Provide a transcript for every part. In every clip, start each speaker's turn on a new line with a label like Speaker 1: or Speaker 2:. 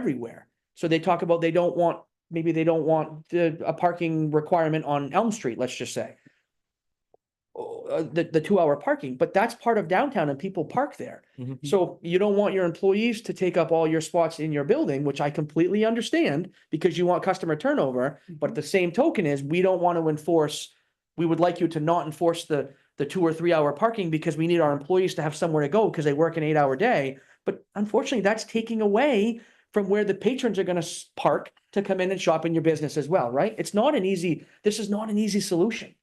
Speaker 1: everywhere. So they talk about they don't want, maybe they don't want the, a parking requirement on Elm Street, let's just say. Oh, uh, the, the two hour parking, but that's part of downtown and people park there.
Speaker 2: Mhm.
Speaker 1: So you don't want your employees to take up all your spots in your building, which I completely understand because you want customer turnover. But the same token is, we don't want to enforce, we would like you to not enforce the, the two or three hour parking because we need our employees to have somewhere to go because they work an eight hour day. But unfortunately, that's taking away from where the patrons are gonna s- park to come in and shop in your business as well, right? It's not an easy, this is not an easy solution.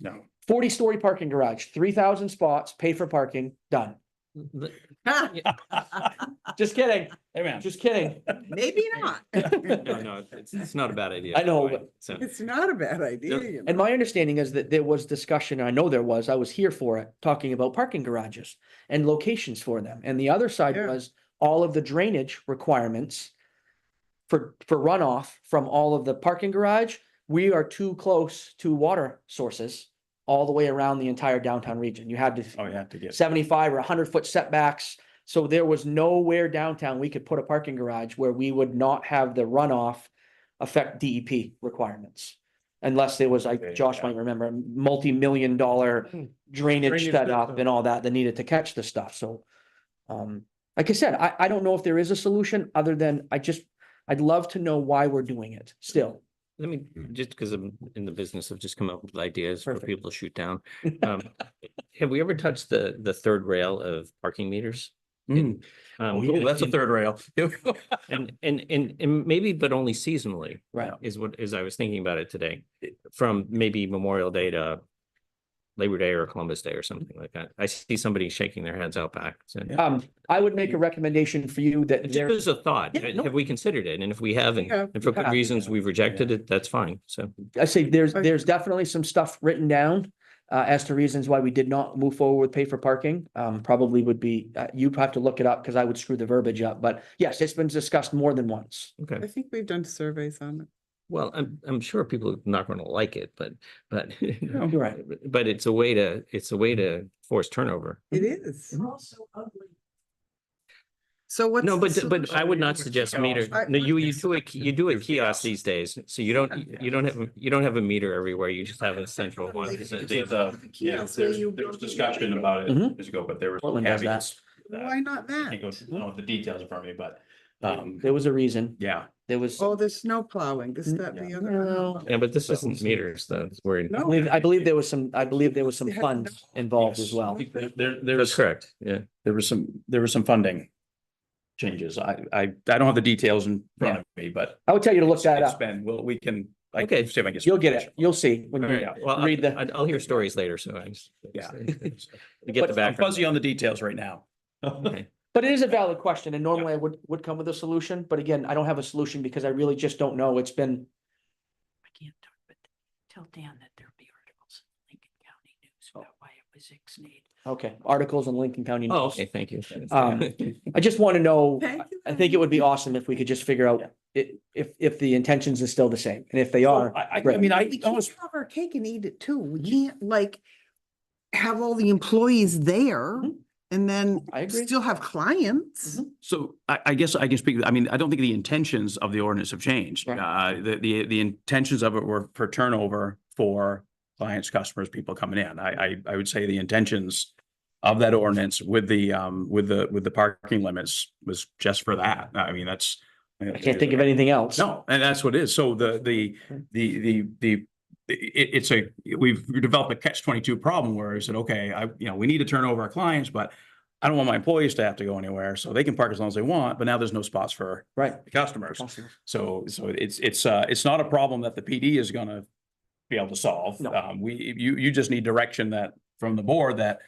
Speaker 2: No.
Speaker 1: Forty story parking garage, three thousand spots, pay for parking, done.
Speaker 2: Th-
Speaker 1: Just kidding,
Speaker 2: Hey, man.
Speaker 1: just kidding.
Speaker 3: Maybe not.
Speaker 2: No, no, it's, it's not a bad idea.
Speaker 1: I know,
Speaker 2: by the way,
Speaker 1: but-
Speaker 2: So,
Speaker 3: It's not a bad idea. you
Speaker 1: And
Speaker 3: know.
Speaker 1: my understanding is that there was discussion, I know there was, I was here for it, talking about parking garages and locations for them. And the other side
Speaker 3: Yeah.
Speaker 1: was all of the drainage requirements for, for runoff from all of the parking garage. We are too close to water sources all the way around the entire downtown region. You had to
Speaker 2: oh, you have to get.
Speaker 1: seventy-five or hundred foot setbacks. So there was nowhere downtown we could put a parking garage where we would not have the runoff affect DEP requirements. Unless there was,
Speaker 2: Okay,
Speaker 1: like Josh
Speaker 2: yeah.
Speaker 1: might remember, a multi-million dollar
Speaker 2: Hmm.
Speaker 1: drainage
Speaker 2: Drainage
Speaker 1: set up
Speaker 2: system.
Speaker 1: and all that that needed to catch the stuff, so. Um, like I said, I, I don't know if there is a solution other than I just, I'd love to know why we're doing it still.
Speaker 2: Let me, just because I'm in the business of just coming up with ideas for
Speaker 1: Perfect.
Speaker 2: people to shoot down. Um, Have we ever touched the, the third rail of parking meters?
Speaker 4: Mm.
Speaker 2: Um,
Speaker 4: Ooh, that's a
Speaker 2: and-
Speaker 4: third rail.
Speaker 2: And, and, and, and maybe, but only seasonally.
Speaker 1: Right.
Speaker 2: Is what, as I was thinking about it today, from maybe Memorial Day to Labor Day or Columbus Day or something like that. I see somebody shaking their heads out back. So
Speaker 4: Yeah.
Speaker 1: Um, I would make a recommendation for you that
Speaker 2: just
Speaker 1: there,
Speaker 2: as a thought,
Speaker 1: Yeah, no.
Speaker 2: have we considered it? And if we haven't,
Speaker 3: Yeah,
Speaker 2: and for good
Speaker 1: yeah.
Speaker 2: reasons we've rejected it, that's fine. So.
Speaker 1: I say there's,
Speaker 3: I-
Speaker 1: there's definitely some stuff written down uh, as to reasons why we did not move forward with pay for parking. Um, probably would be, uh, you'd have to look it up because I would screw the verbiage up, but yes, it's been discussed more than once.
Speaker 2: Okay,
Speaker 3: I think we've done surveys on it.
Speaker 2: well, I'm, I'm sure people are not going to like it, but, but,
Speaker 1: You're right.
Speaker 2: but it's a way to, it's a way to force turnover.
Speaker 3: It is. So what's?
Speaker 2: No,
Speaker 3: the
Speaker 2: but, but I would
Speaker 3: solution?
Speaker 2: not suggest meter.
Speaker 3: I-
Speaker 2: No, you, you
Speaker 3: it's-
Speaker 2: do a, you do a kiosk these days. So you don't, you don't have, a- you don't have a meter everywhere. You just have a central one.
Speaker 3: Like,
Speaker 2: So
Speaker 3: it's
Speaker 2: they-
Speaker 4: There's a, uh, yeah,
Speaker 3: Yes,
Speaker 4: there's,
Speaker 3: you
Speaker 4: there was
Speaker 3: don't do
Speaker 4: discussion
Speaker 3: that.
Speaker 4: about it
Speaker 1: Mhm.
Speaker 4: years ago, but there was.
Speaker 1: Portland does that.
Speaker 4: caveats to that.
Speaker 3: Why not
Speaker 4: I
Speaker 3: that?
Speaker 4: can't go, to- I don't know the details in front of me, but, um,
Speaker 1: There was a reason.
Speaker 4: yeah.
Speaker 1: There was, I
Speaker 3: Oh, there's snow plowing. Is
Speaker 1: Mm,
Speaker 3: that the
Speaker 4: yeah.
Speaker 3: other?
Speaker 1: No.
Speaker 2: Yeah, but this isn't meters though. It's where.
Speaker 3: No.
Speaker 1: believe, I believe there was some, I believe there was some
Speaker 3: They had
Speaker 1: funds involved as well.
Speaker 4: There, there- there
Speaker 2: That's
Speaker 4: was,
Speaker 2: correct. Yeah.
Speaker 4: there was some, there was some funding changes. I, I, I don't have the details in front of me, but.
Speaker 1: I would tell you to look that
Speaker 4: it's
Speaker 1: up.
Speaker 4: Been, well, we can. I
Speaker 2: Okay.
Speaker 4: can see if I can
Speaker 1: You'll get it. You'll see when you,
Speaker 4: Yeah.
Speaker 2: Well,
Speaker 1: Read
Speaker 2: I-
Speaker 1: the-
Speaker 2: I'd- I'll hear stories later, so I just.
Speaker 4: Yeah.
Speaker 2: To get the
Speaker 4: I'm
Speaker 2: background.
Speaker 4: Fuzzy on the details right now.
Speaker 2: Okay.
Speaker 1: but it is a valid question and normally I would, would come with a solution, but again, I don't have a solution because I really just don't know. It's been
Speaker 5: I can't do it, but tell Dan that there'll be articles in Lincoln County News about why it was ex-nate.
Speaker 1: Oh. Okay, articles in Lincoln County.
Speaker 2: Oh,
Speaker 1: News.
Speaker 2: okay, thank you.
Speaker 1: Um, I just want to know,
Speaker 3: Thank you
Speaker 1: I
Speaker 3: very
Speaker 1: think it would be awesome if we could just figure out i- if, if the intentions is still the same, and if they
Speaker 4: So
Speaker 1: are,
Speaker 4: I, I, I
Speaker 1: great.
Speaker 4: mean, I
Speaker 3: We can't
Speaker 4: almost,
Speaker 3: have our cake and eat it too. We can't like have all the employees there
Speaker 1: Mhm.
Speaker 3: and then
Speaker 1: I agree.
Speaker 3: still have clients.
Speaker 4: so I, I guess I can speak, I mean, I don't think the intentions of the ordinance have changed. Uh, the, the, the intentions of it were for turnover for clients, customers, people coming in. I, I, I would say the intentions of that ordinance with the, um, with the, with the parking limits was just for that. I mean, that's.
Speaker 1: I can't think of anything else.
Speaker 4: No, and that's what it is. So the, the, the, the, the, it, it's a, we've developed a catch twenty-two problem where we said, okay, I, you know, we need to turn over our clients, but I don't want my employees to have to go anywhere, so they can park as long as they want, but now there's no spots for
Speaker 1: Right.
Speaker 4: the customers.
Speaker 1: Customers.
Speaker 4: So, so it's, it's, uh, it's not a problem that the PD is gonna be able to solve.
Speaker 1: No.
Speaker 4: Um, we, you, you just need direction that, from the board that,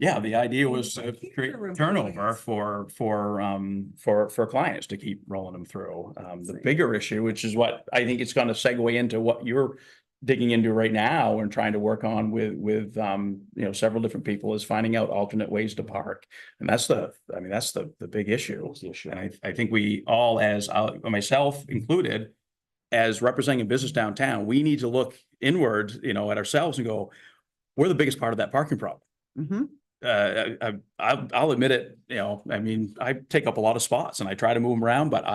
Speaker 4: yeah, the idea was to
Speaker 3: Keep
Speaker 4: create
Speaker 3: your
Speaker 4: turnover
Speaker 3: employees.
Speaker 4: for, for, um, for, for clients to keep rolling them through. Um, the bigger issue, which is what I think it's gonna segue into what you're digging into right now and trying to work on with, with, um, you know, several different people is finding out alternate ways to park. And that's the, I mean, that's the, the big issue. And I, I think we all, as I- myself included, as representing a business downtown, we need to look inward, you know, at ourselves and go, we're the biggest part of that parking problem.
Speaker 3: Mhm.
Speaker 4: Uh, I, I, I'll admit it, you know, I mean, I take up a lot of spots and I try to move them around, but I.